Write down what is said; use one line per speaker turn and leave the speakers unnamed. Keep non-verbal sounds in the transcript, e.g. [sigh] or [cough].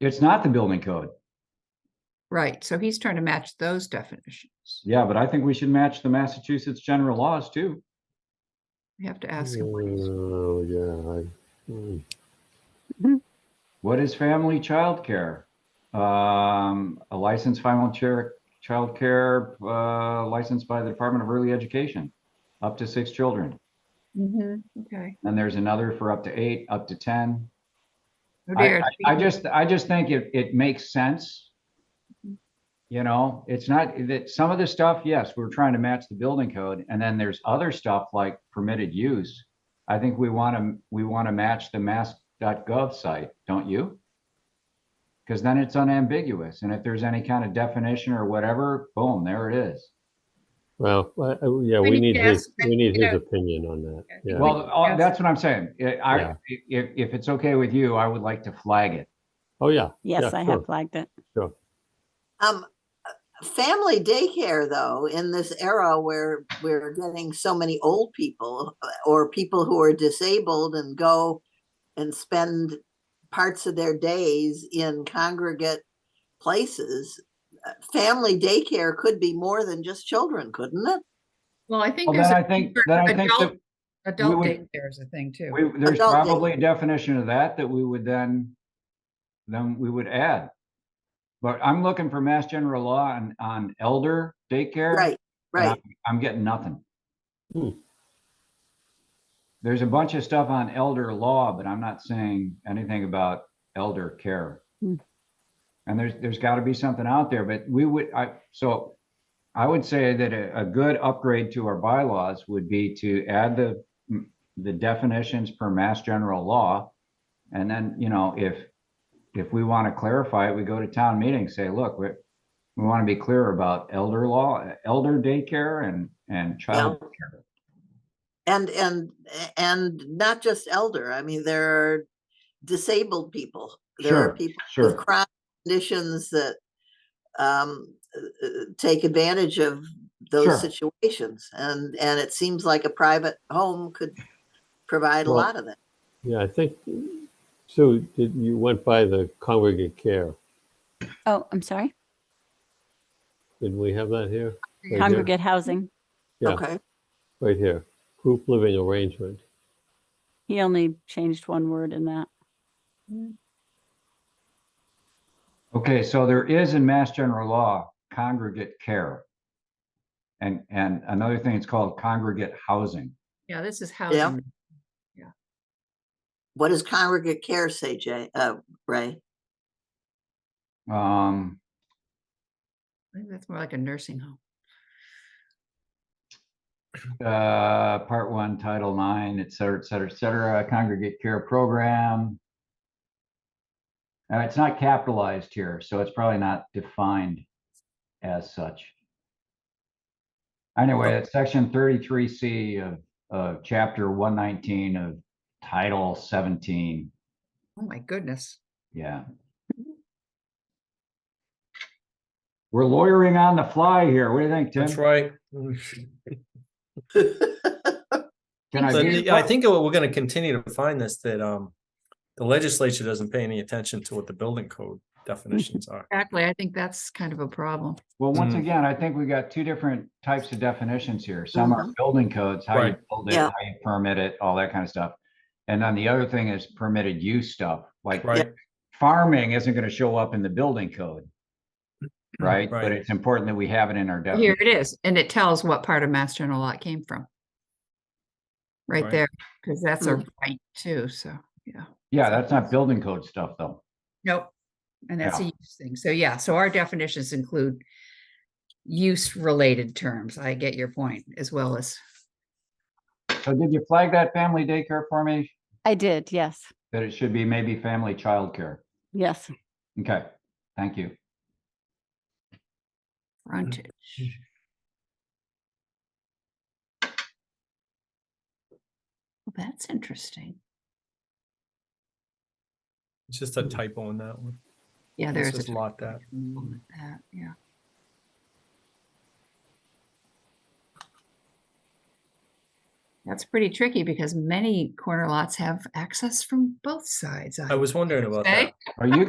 It's not the building code.
Right, so he's trying to match those definitions.
Yeah, but I think we should match the Massachusetts general laws too.
We have to ask him. what he's-
Oh, yeah. I, mm.
What is family childcare? Um, a licensed family chair, childcare, uh, licensed by the Department of Early Education, up to six children.
Mhm, Okay.
And there's another for up to eight, up to 10.
Oh
I,
dear,
I- I just, I just think it, it makes sense. You know, it's not that some of the stuff, yes, we're trying to match the building code and then there's other stuff like permitted use. I think we want to, we want to match the mass.gov site, don't you? Because then it's unambiguous. And if there's any kind of definition or whatever, boom, there it is.
Well, I- I- yeah,
We
we
need
need
to
his,
ask him,
we need
you
his
know.
opinion on that.
I think
Yeah.
Well, uh,
Yes.
that's what I'm saying. I-
Yeah.
I, if, if it's okay with you, I would like to flag it.
Oh, yeah.
Yes,
Yeah,
I
sure.
have flagged it.
Um, uh, family daycare though, in this era where we're getting so many old people uh, or people who are disabled and go and spend parts of their days in congregate places, uh, family daycare could be more than just children, couldn't it?
well, I think
Well,
there's.
then I
a
think,
for
then I think that.
adult- Adult
would-
daycare is a thing too.
We, there's
Adult day.
probably a definition of that that we would then, then we would add. But I'm looking for mass general law on, on elder daycare.
Right,
and
right.
I'm- I'm getting nothing.
Hmm.
There's a bunch of stuff on elder law, but I'm not saying anything about elder care.
Hmm.
And there's, there's gotta be something out there, but we would, I, so I would say that a, a good upgrade to our bylaws would be to add the, the definitions per mass general law. And then, you know, if, if we want to clarify it, we go to town meeting, say, look, we, we want to be clear about elder law, elder daycare and, and child. care.
And, and, a- and not just elder. I mean, there are disabled people. There
Sure,
are people with
Sure,
chronic conditions that um, uh, uh, take advantage of
Sure.
those situations. And, and it seems like a private home could provide a
Well,
lot of that.
Yeah, I think, Sue, did, you went by the congregate care.
Oh, I'm sorry.
Did we have that here?
We
Right here?
Congregate housing.
yeah.
Okay,
Right here. Group living arrangement.
He only changed one word in that.
okay, so there is in mass general law congregate care. And, and another thing, it's called congregate housing.
Yeah, this is housing.
what does congregate care say, Jay, uh, Ray?
Um,
I think that's more like a nursing home.
uh, part one, title nine, et cetera, et cetera, et cetera, congregate care program. Uh, it's not capitalized here, so it's probably not defined as such. Anyway, it's section thirty-three C of, of chapter one nineteen of title seventeen,
Oh, my goodness.
yeah. We're lawyering on the fly here. What do you think, Tim?
That's right.
Can I
So
be-
the- I think that we're gonna continue to find this, that um, the legislature doesn't pay any attention to what the building code definitions are.
Exactly. I think that's kind of a problem.
Well, once
Mm.
again, I think we got two different types of definitions here. Some are building codes, how you
Right.
build it,
Yeah.
how you permit it, all that kind of stuff. And then the other thing is permitted use stuff, like
Right,
farming isn't going to show up in the building
[clears throat]
code. Right? But
Right.
it's important that we have it in our definition.
Here it is, and it tells what part of Mass General Law it came from. Right
Right.
there, because that's a right too, so, yeah.
Yeah, that's not building code stuff though.
Nope. And that's a
Yeah.
use thing. So yeah, so our definitions include use related terms. I get your point as well as,
So did you flag that family daycare for me?
I did. Yes.
That it should be maybe family childcare?
Yes.
Okay, thank you.
frontage. Well, That's interesting.
it's just a typo in that one.
Yeah,
Let's
there's
just
a
lot that.
problem with that, yeah. That's pretty tricky because many corner lots have access from both sides.
I was wondering about
Okay.
that.
Are you